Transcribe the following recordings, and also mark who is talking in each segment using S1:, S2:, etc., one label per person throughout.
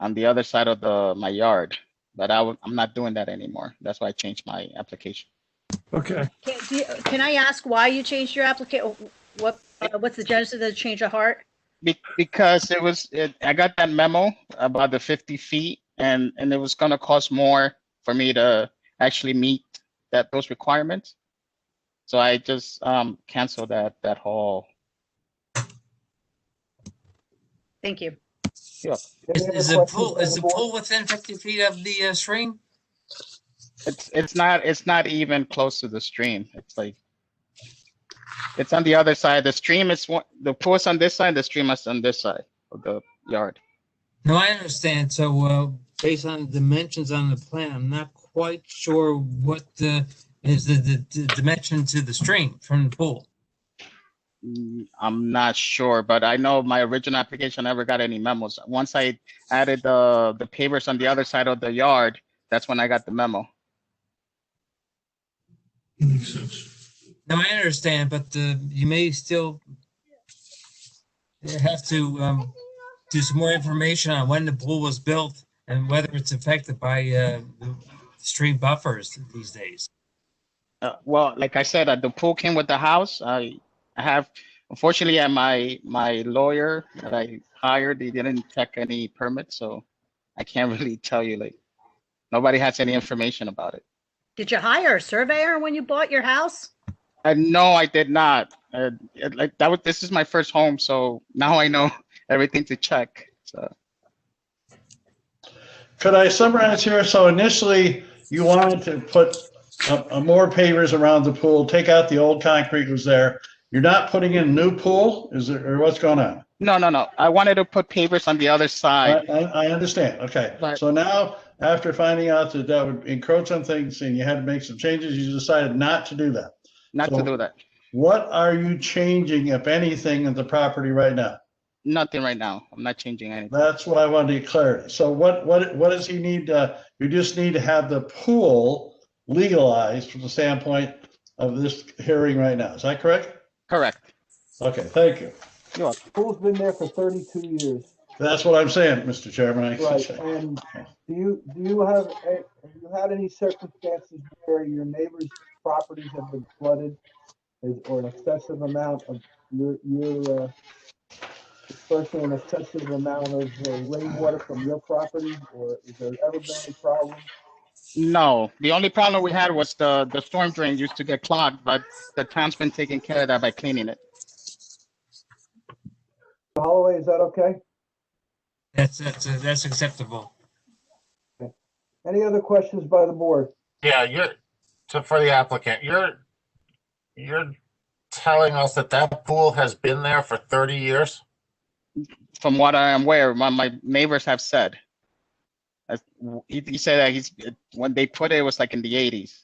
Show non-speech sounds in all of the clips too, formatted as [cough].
S1: on the other side of the, my yard. But I would, I'm not doing that anymore. That's why I changed my application.
S2: Okay,
S3: Can, do you- can I ask why you changed your application? What, uh, what's the genesis of the change of heart?
S1: Be- because it was, it, I got that memo about the fifty feet and, and it was gonna cost more for me to actually meet that, those requirements. So I just, um, canceled that, that whole,
S3: Thank you.
S4: Is is the pool, is the pool within fifty feet of the uh, stream?
S1: it's, it's not, it's not even close to the stream. It's like, it's on the other side. The stream is one, the pool's on this side, the stream is on this side of the yard.
S4: No, I understand. So, uh, based on dimensions on the plan, I'm not quite sure what the, is the, the, the dimension to the stream from the pool.
S1: Mm, I'm not sure, but I know my original application never got any memos. Once I added the, the pavers on the other side of the yard, that's when I got the memo.
S2: makes sense.
S4: No, I understand, but, uh, you may still have to, um, do some more information on when the pool was built and whether it's affected by, uh, the stream buffers these days.
S1: Uh, well, like I said, uh, the pool came with the house. I I have, unfortunately, uh, my, my lawyer that I hired, they didn't check any permits, so I can't [laughs] really tell you, like, nobody has any information about it.
S3: Did you hire a surveyor when you bought your house?
S1: And Uh, no, I did not. Uh, it- like, that was, this is my first home, so now I know [laughs] everything to check, so.
S5: Could I summarize here? So initially, you wanted to put a, a more pavers around the pool, take out the old concrete was there. You're not putting in new pool, is there, or what's going on?
S1: No, no, no. I wanted to put pavers on the other
S5: I,
S1: side.
S5: I, I understand, okay.
S1: Right.
S5: So now, after finding out that that would encroach on things and you had to make some changes, you decided not to do that.
S1: Not to
S5: so-
S1: do that.
S5: What are you changing, if anything, at the property right now?
S1: Nothing right now. I'm not changing anything.
S5: That's what I wanted to get clarity. So what, what, what does he need, uh, you just need to have the pool legalized from the standpoint of this hearing right now, is that correct?
S1: Correct.
S5: Okay, thank you.
S6: Pool's been there for thirty-two years.
S5: That's what I'm saying, Mr. Chairman. I should
S6: Right,
S5: say.
S6: and do you, do you have, a- have you had any circumstances where your neighbors' properties have been flooded? is- Or an excessive amount of, your, your, uh, dispersing an excessive amount of uh, rainwater from your property? Or is there ever been any problem?
S1: No, the only problem we had was the, the storm drain used to get clogged, but the town's been taking care of that by cleaning it.
S6: Holloway, is that okay?
S4: That's, that's, uh, that's acceptable.
S6: Any other questions by the board?
S7: Yeah, you're, so for the applicant, you're, you're telling us that that pool has been there for thirty years?
S1: From what I am aware, my, my neighbors have said. As- He, he said that he's, when they put it, it was like in the eighties.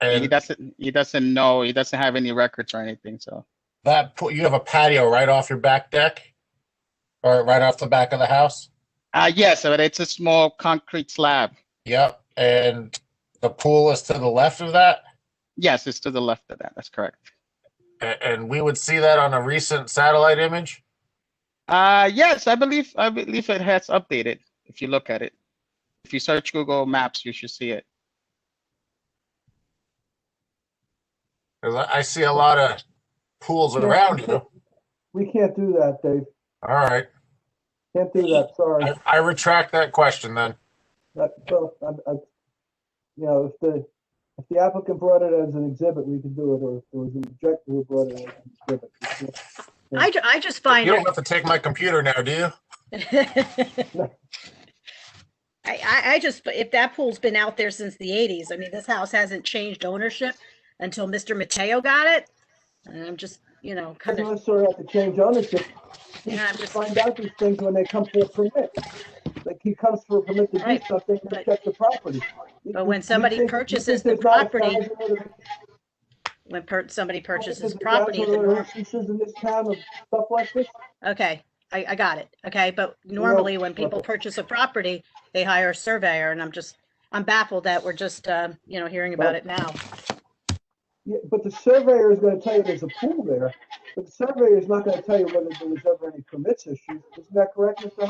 S1: He
S7: And
S1: doesn't, he doesn't know, he doesn't have any records or anything, so.
S7: that pool, you have a patio right off your back deck? Or right off the back of the house?
S1: Uh, yes, but it's a small concrete slab.
S7: Yep, and the pool is to the left of that?
S1: Yes, it's to the left of that. That's correct.
S7: A- And we would see that on a recent satellite image?
S1: Uh, yes, I believe, I believe it has updated, if you look at it. If you search Google Maps, you should see it.
S7: 'Cause I I see a lot of pools around you.
S6: We can't do that, Dave.
S7: All right,
S6: Can't do that, sorry.
S7: I- I retract that question then.
S6: That, so, I, I, you know, if the, if the applicant brought it as an exhibit, we could do it, or if there was an objector who brought it as an exhibit. we can't-
S3: I, ju- I just find
S7: You don't
S3: it.
S7: have to take my computer now, do you?
S3: I, [laughs] I, I just, if that pool's been out there since the eighties, I mean, this house hasn't changed ownership until Mr. Mateo got it. And I'm just, you know,
S6: We
S3: kind
S6: don't
S3: of,
S6: necessarily have to change ownership. We
S3: Yeah, I'm
S6: should
S3: just-
S6: Find out these things when they come for a permit. Like, he comes for a permit to do
S3: Right,
S6: something, to
S3: but-
S6: check the property.
S3: but when somebody purchases the property- when per- somebody purchases property, the norm-
S6: Instances in this town of stuff like this?
S3: Okay, I, I got it. Okay, but
S6: know,
S3: normally when
S6: look
S3: people
S6: at-
S3: purchase a property, they hire a surveyor and I'm just, I'm baffled that we're just, um, you know, hearing about
S6: Well-
S3: it now.
S6: Yeah, but the surveyor is gonna tell you there's a pool there, but the surveyor is not gonna tell you whether there was ever any permits issued. Isn't that correct, Mr.